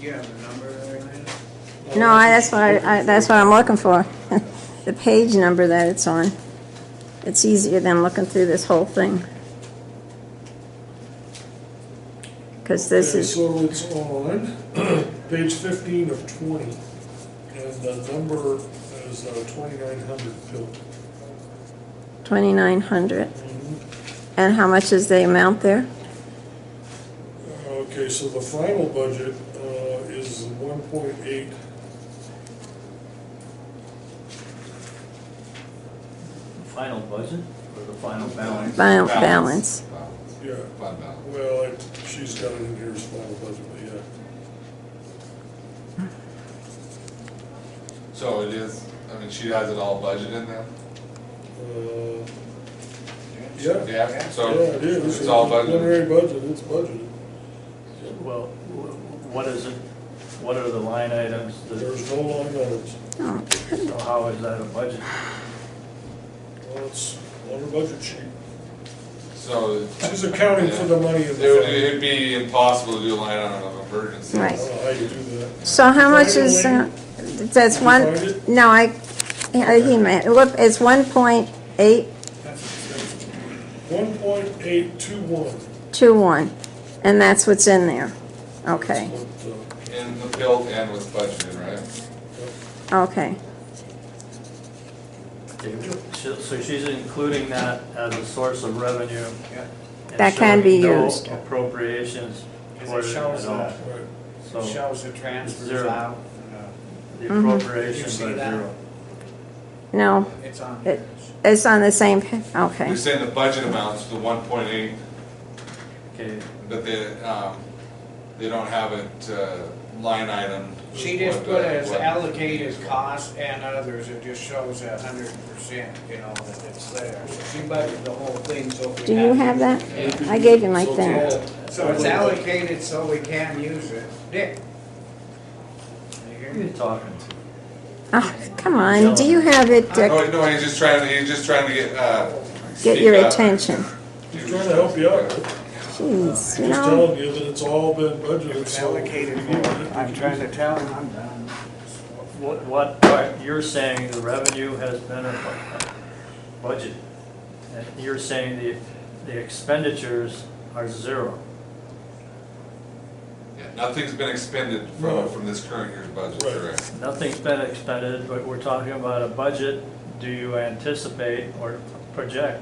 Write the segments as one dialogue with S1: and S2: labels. S1: Do you have a number there? Lynn?
S2: No, I, that's what I, I- that's what I'm looking for, the page number that it's on. It's easier than looking through this whole thing. Because this
S3: Okay,
S2: is,
S3: So it's on page fifteen of twenty, and the number is uh, twenty-nine hundred bill.
S2: 2,900.
S4: Mm-hmm.
S2: And how much is the amount there?
S3: Okay, so the final budget uh, is one point eight.
S5: Final budget or the final balance?
S2: Final balance.
S3: Yeah.
S4: Fund balance.
S3: Well, it- she's got it in here as final budget, but yeah.
S4: So it is, I mean, she has it all budgeted now?
S3: Uh, Yeah, yeah,
S4: Yeah, so
S3: it is.
S4: it's all
S3: Preliminary
S4: budgeted.
S3: budget, it's budgeted.
S5: Well, wh- what is it, what are the line items, that-
S3: There's no line items.
S2: Oh,
S5: so how is that a budget?
S3: Well, it's on her budget sheet.
S4: So
S3: She's accounting for the money in
S4: it
S3: the
S4: would,
S3: fund.
S4: it'd be impossible to do a line item of emergency.
S3: I
S2: Right.
S3: don't know Uh, how you do that.
S2: So how much
S3: Final
S2: is, uh,
S3: link?
S2: that's
S3: Did you
S2: one,
S3: find it?
S2: no, I, I- he meant, look, it's 1.821.
S1: That's expensive.
S3: One point eight two one.
S2: And that's what's in there. Okay,
S4: In the built and was budgeted, right?
S3: uh,
S2: okay.
S5: She- So she's including that as a source of revenue?
S1: Yeah.
S5: and
S2: That can be
S5: showing no
S2: used.
S5: appropriations
S1: Because
S5: toward
S1: it
S5: it
S1: shows,
S5: at
S1: uh,
S5: all.
S1: it
S5: So
S1: shows the transfers
S5: Zero.
S1: out. and, uh,
S5: the
S2: Mhm.
S5: appropriations
S1: Did you
S5: are
S1: see that?
S5: zero.
S2: No,
S1: It's on
S2: It-
S1: here.
S2: it's on the same, pa- okay.
S4: You're saying the budget amounts to one point eight,
S5: Okay,
S4: but they, um, they don't have it, uh, line item.
S1: She just
S4: what,
S1: put
S4: uh,
S1: as
S4: what-
S1: allocated costs and others, it just shows a hundred percent, you know, that it's there. So She budgeted the whole thing, so if we.
S2: Do you have that? I gave you my thing.
S1: So it's allocated so we can use it. Dick? You hear
S5: who are you
S1: me?
S5: talking
S2: Oh, come on, do you have it, Dick?
S4: No, no, he's just trying, to- he's just trying to get, uh.
S2: Get
S4: speak
S2: your
S4: up.
S2: attention.
S3: He's trying to help you out.
S2: Jeez, you
S3: He's
S2: know,
S3: telling you that it's all been budgeted,
S1: It's
S3: so.
S1: allocated for, I'm trying to tell him I'm done.
S5: to? What, what part, you're saying the revenue has been a bu- a budget, and you're saying the, the expenditures are zero.
S4: Yeah, Nothing's been expended
S3: No.
S4: from, from this current year's budget,
S3: Right.
S4: correct?
S5: Nothing's been expended, but we're talking about a budget. Do you anticipate or project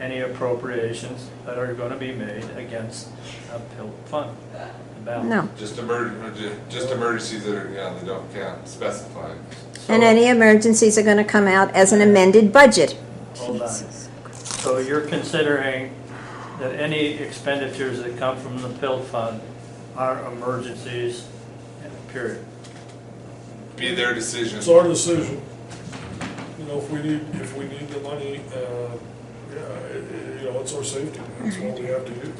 S5: any appropriations that are gonna be made against a PILT fund? the balance?
S2: no.
S4: Just emergency, just emergencies that are, yeah, they don't count, specified.
S5: So-
S2: And any emergencies are gonna come out as an amended budget.
S5: Hold on. So you're considering that any expenditures that come from the PILT fund are emergencies, period?
S4: Be their decision.
S3: It's our decision. You know, if we need, if we need the money, uh, yeah, it- it- you know, it's our safety, that's what we have to do.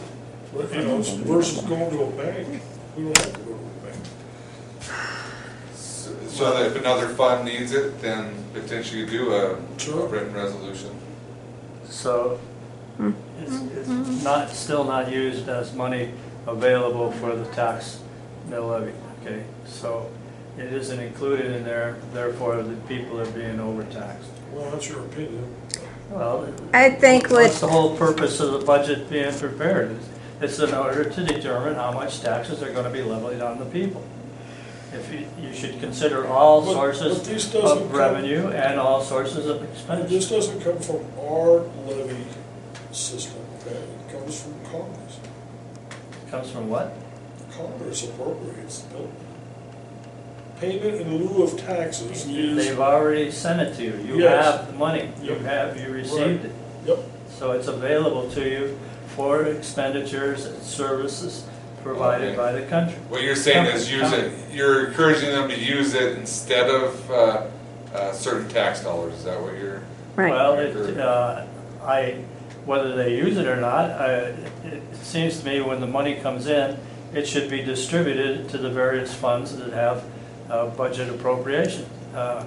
S3: But, you know, it's versus going to a bank, we don't have to go to a bank.
S4: So so that if another fund needs it, then potentially do a
S3: Sure.
S4: a written resolution.
S5: So it's it's not, still not used as money available for the tax mill levy, okay? So it isn't included in there, therefore the people are being overtaxed.
S3: Well, that's your opinion.
S5: Well,
S2: I think
S5: that's
S2: with,
S5: the whole purpose of the budget being prepared. is It's in order to determine how much taxes are gonna be levied on the people. If you, you should consider all
S3: But- but this
S5: sources
S3: doesn't
S5: of
S3: come-
S5: revenue and all sources of
S3: And
S5: expense.
S3: Uh, this doesn't come from our levy system, okay? It comes from Congress.
S5: Comes from what?
S3: Congress appropriates the bill. Payment in lieu of taxes is,
S5: They've already sent it to you. You
S3: Yes.
S5: have the money. You
S3: Yep.
S5: have, you received it.
S3: yep,
S5: So it's available to you for expenditures and services provided
S4: Okay.
S5: by the country.
S4: What you're saying is use it, you're encouraging them to use it instead of uh, uh, certain tax dollars, is that what you're?
S2: right,
S5: Well, it, uh, I, whether they use it or not, I- it it seems to me when the money comes in, it should be distributed to the various funds that have uh, budget appropriation. Uh,